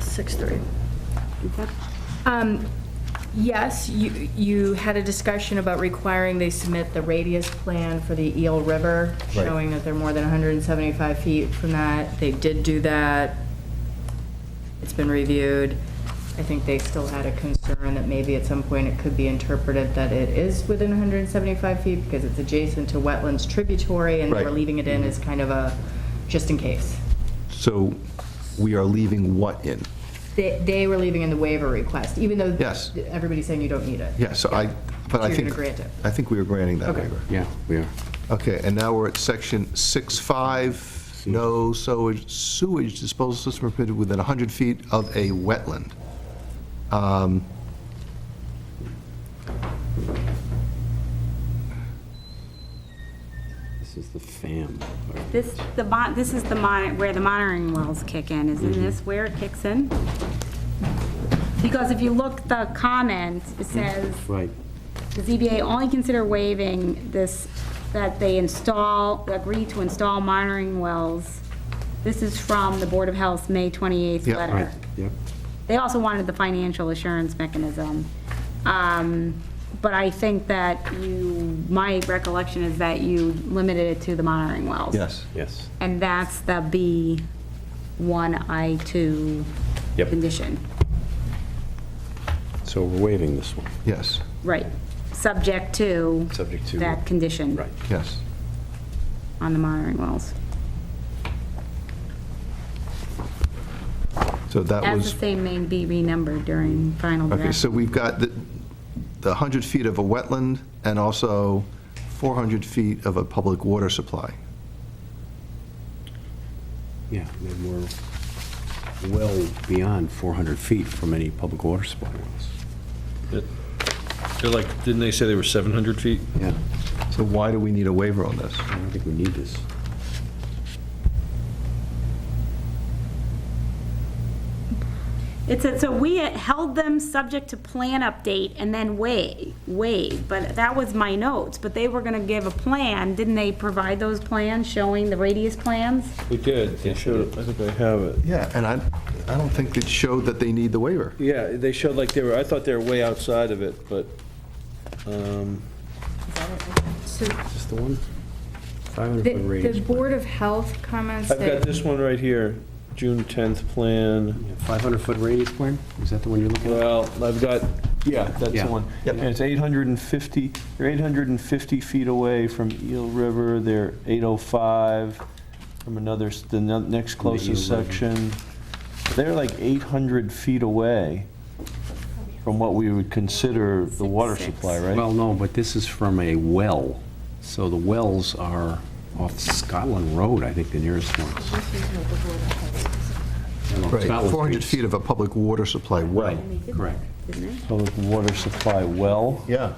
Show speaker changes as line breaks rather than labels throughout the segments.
6:30. Um, Yes, you, you had a discussion about requiring they submit the radius plan for the Eel River,
Right.
showing that they're more than 175 feet from that. They did do that. It's been reviewed. I think they still had a concern that maybe at some point it could be interpreted that it is within 175 feet because it's adjacent to wetlands tributary and we're
Right. Mm-hmm.
leaving it in as kind of a, just in case.
So we are leaving what in?
They, they were leaving in the waiver request, even though
Yes.
everybody's saying you don't need it.
Yeah, so I, but I
So you're
think.
gonna grant it.
I think we are granting that
Okay.
waiver.
Yeah, we are.
Okay, and now we're at section 6.5, no sewage sewage disposal system permitted within 100 feet of a wetland. Um,
This is the FAM. part.
This, the mon, this is the mon, where the monitoring wells kick in, isn't
Mm-hmm.
this where it kicks in? Because if you look, the comment, it says,
Right.
the ZBA only consider waiving this, that they install, agree to install monitoring wells. This is from the Board of Health's May 28th
Yeah,
letter.
Right, yep.
They also wanted the financial assurance mechanism. Um, But I think that you, my recollection is that you limited it to the monitoring wells.
Yes.
Yes.
And that's the B1I2
Yep.
condition.
So we're waiving this one.
Yes,
Right. Subject to
Subject to-
that condition
Right.
yes.
on the monitoring wells.
So that
As the
was,
same may be renumbered during final
okay,
draft.
so we've got the the 100 feet of a wetland and also 400 feet of a public water supply.
Yeah, then we're well beyond 400 feet from any public water supply.
They're like, didn't they say they were 700 feet?
Yeah,
So why do we need a waiver on this?
I don't think we need this.
It said, so we held them subject to plan update and then waive, waive, but that was my notes. But they were going to give a plan, didn't they provide those plans showing the radius plans?
We did. They showed, I think I have it.
Yeah, and I, I don't think it showed that they need the waiver.
Yeah, they showed like they were, I thought they were way outside of it, but, um,
Is this the one? 500
The,
foot radius.
the Board of Health comments
I've got
that,
this one right here, June 10th plan.
500 foot radius plan? Is that the one you're looking at?
Well, I've got, yeah, that's the
Yeah.
one.
Yep.
And it's 850, they're 850 feet away from Eel River, they're 805 from another, s- the ne- next
From the
closest
Eel River.
section. They're like 800 feet away from what we would consider the water
Six, six.
supply, right?
Well, no, but this is from a well. So the wells are off Scotland Road, I think, the nearest ones. No,
Right,
Scotland
400
Street's-
feet of a public water supply well.
Correct.
public water supply well.
Yeah.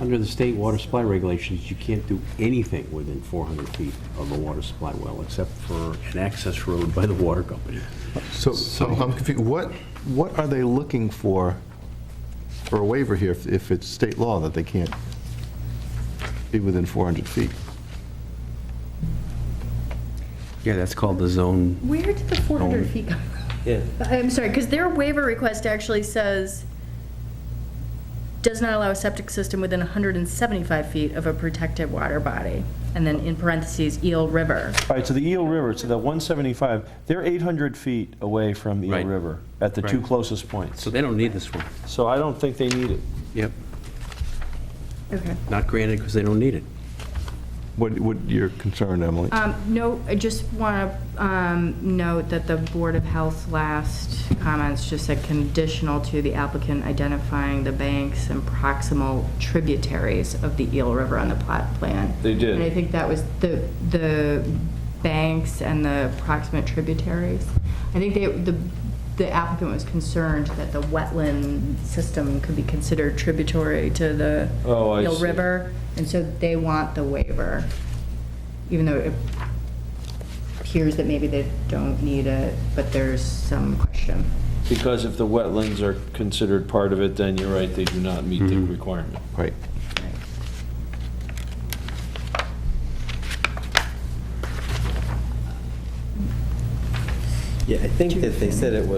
Under the state water supply regulations, you can't do anything within 400 feet of a water supply well, except for an access road by the water company.
So so I'm confused, what, what are they looking for, for a waiver here, if- if it's state law that they can't be within 400 feet?
Yeah, that's called the zone.
where did the 400 feet come from? I'm sorry, because their waiver request actually says, does not allow a septic system within 175 feet of a protected water body, and then in parentheses, Eel River.
All right, so the Eel River, so that 175, they're 800 feet away from Eel
Right.
River at the two
Right.
closest points.
So they don't need this one.
So I don't think they need it.
Yep,
Okay.
not granted because they don't need it.
What, what your concern, Emily?
Um, No, I just want to note that the Board of Health's last comments just said conditional to the applicant identifying the banks and proximal tributaries of the Eel River on the plot plan.
They did.
And I think that was the, the banks and the proximate tributaries. I think they, the the applicant was concerned that the wetland system could be considered tributary to the
Oh, I
Eel
see.
River, and so they want the waiver even though it appears that maybe they don't need it, but there's some question.
Because if the wetlands are considered part of it, then you're right, they do not meet the requirement.
Right.
Yeah, I think that they said it was